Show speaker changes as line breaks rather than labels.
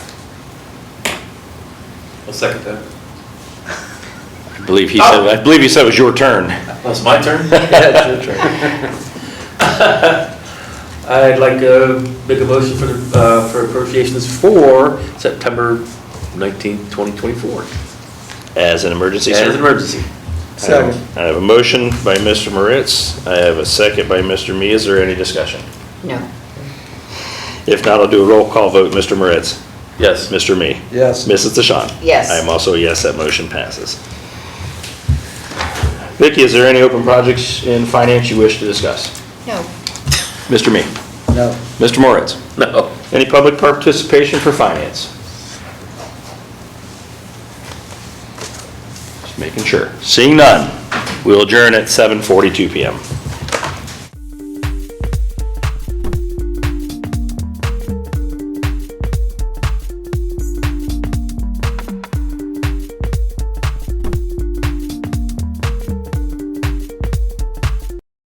I'll second that.
I believe he said, I believe he said it was your turn.
That's my turn? I'd like to make a motion for, the uh, for appropriations for September nineteenth, twenty twenty-four.
As an emergency,
As an
sir?
emergency.
Second.
I have a motion by Mr. Moritz. I have a second by Mr. Mee. Is there any discussion?
No.
If not, I'll do a roll call vote. Mr. Moritz?
Yes.
Mr. Mee?
Yes.
Mrs. DeShawn?
Yes.
I am also a yes, that motion passes. Vicki, is there any open projects in finance you wish to discuss?
No.
Mr. Mee?
No.
Mr. Moritz?
No.
Any public participation for finance? Just making sure. Seeing none, we'll adjourn at 7:42 PM.